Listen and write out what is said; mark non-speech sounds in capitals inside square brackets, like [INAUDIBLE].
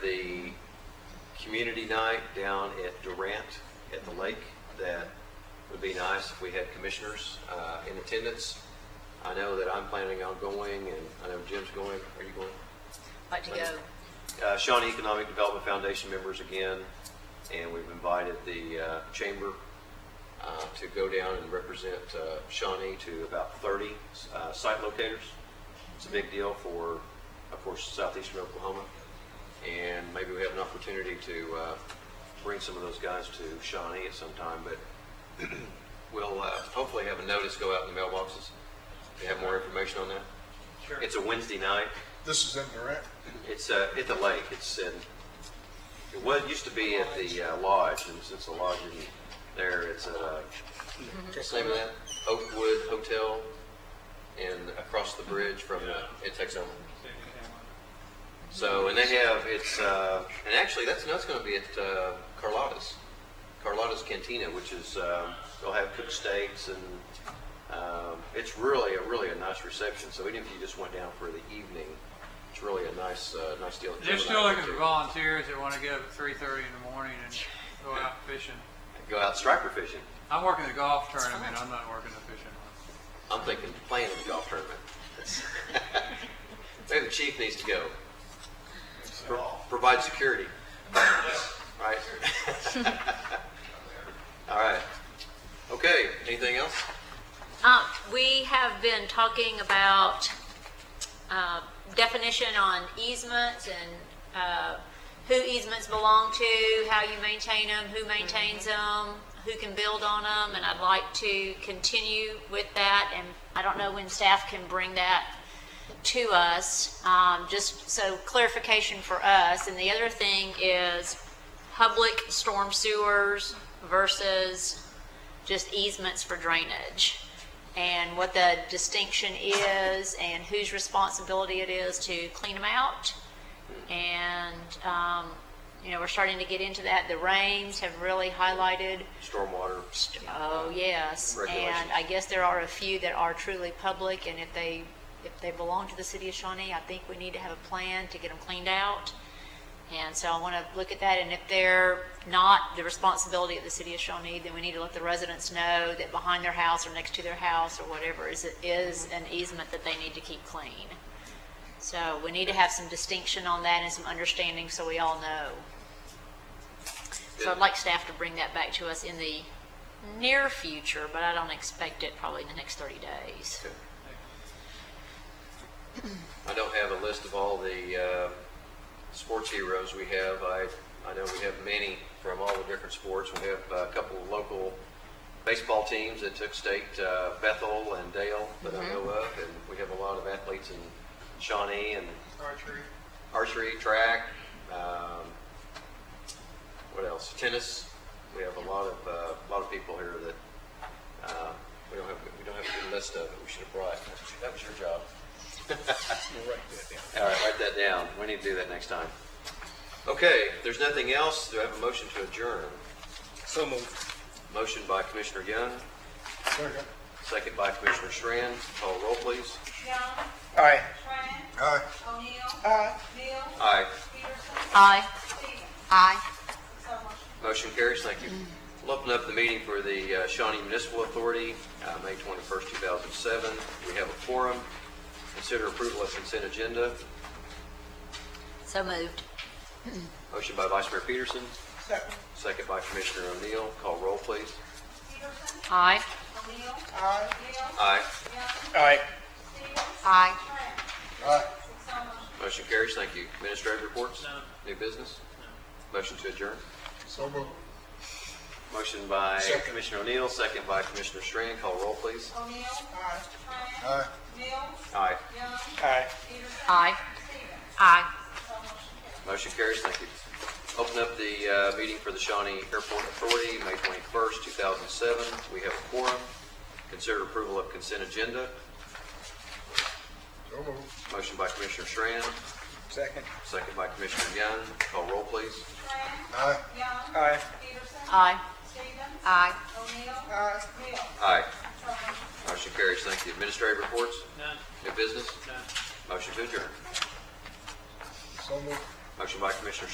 night down at Durant at the lake that would be nice if we had commissioners uh, in attendance. I know that I'm planning on going, and I know Jim's going. Are you going? Like to go, Uh, Shawnee Economic Development Foundation members again, and we've invited the uh, chamber uh, to go down and represent uh, Shawnee to about 30 uh, site locators. It's a big deal for, of course, southeastern Oklahoma, and maybe we have an opportunity to uh, bring some of those guys to Shawnee at some time, but [CLEARS THROAT] we'll uh, hopefully have a notice go out in the mailboxes to have more information on that. Sure. It's a Wednesday night. This is in Durant. It's uh, at the lake. It's in, it was, used to be at the uh, lodge, and since the lodge isn't there, it's at, uh, what's the name of that? Oakwood Hotel, and across the bridge from, uh, it takes over. So, and they have, it's, uh, and actually, that's, that's gonna be at, uh, Carlotta's, Carlotta's Cantina, which is, um, they'll have cooked steaks and, um, it's really, a really a nice reception, so even if you just went down for the evening, it's really a nice, uh, nice deal. They're still looking for volunteers that want to get up at three thirty in the morning and go out fishing. Go out striper fishing. I'm working the golf tournament, I'm not working the fishing one. I'm thinking playing in the golf tournament. [LAUGHS] Maybe the chief needs to go. Pro- Provide security. Right? [LAUGHS] All right. Okay, anything else? um, we have been talking about, uh, definition on easements and, uh, who easements belong to, how you maintain them, who maintains them, who can build on them, and I'd like to continue with that, and I don't know when staff can bring that to us, um, just so clarification for us. And the other thing is public storm sewers versus just easements for drainage. And what the distinction is and whose responsibility it is to clean them out. And, um, you know, we're starting to get into that. The rains have really highlighted Stormwater. Oh, yes, Regulations. and I guess there are a few that are truly public, and if they, if they belong to the city of Shawnee, I think we need to have a plan to get them cleaned out. And so I want to look at that, and if they're not the responsibility of the city of Shawnee, then we need to let the residents know that behind their house or next to their house or whatever is, is an easement that they need to keep clean. So we need to have some distinction on that and some understanding so we all know. So I'd like staff to bring that back to us in the near future, but I don't expect it probably in the next 30 days. I don't have a list of all the uh, sports heroes we have. I, I know we have many from all the different sports. We have uh, a couple of local baseball teams that took state, uh, Bethel and Dale, that I know of, and we have a lot of athletes in Shawnee and Archery? archery, track, um, what else? Tennis. We have a lot of uh, a lot of people here that uh, we don't have we don't have a good list of it. We should have brought. That was your job. All right, write that down. We need to do that next time. Okay, if there's nothing else, do I have a motion to adjourn? So moved. Motion by Commissioner Young, Second. second by Commissioner Schran. Call roll, please. Young, Aye. Tran, Aye. O'Neill, Aye. Mills, Aye. Peterson, Aye. Stevens. Aye. So motion. Motion carries. Thank you. We'll open up the meeting for the uh, Shawnee Municipal Authority, uh, May 21st, 2007. We have a quorum. Consider approval of consent agenda. So moved. Motion by Vice Mayor Peterson. Second by Commissioner O'Neill. Call roll, please. Peterson, Aye. O'Neill, Aye. Mills, Aye. Young, Aye. Stevens, Aye. Tran. Aye. So motion. Motion carries. Thank you. Administrative reports? No. New business? Motion to adjourn. So moved. Motion by Second. Commissioner O'Neill, second by Commissioner Strand. Call roll, please. O'Neill, Tran. Aye. Mills, Aye. Young, Aye. Peterson, Aye. Stevens. Aye. So motion Motion carries. carries. Thank you. Open up the uh, meeting for the Shawnee Airport Authority, May 21st, 2007. We have a quorum. Consider approval of consent agenda. So moved. Motion by Commissioner Strand, Second. second by Commissioner Young. Call roll, please. Tran, Aye. Young, Aye. Peterson, Aye. Stevens, Aye. O'Neill, Mills. Aye. So motion. Motion carries. Thank you. Administrative reports? None, New business? none. Motion to adjourn. So moved. Motion by Commissioner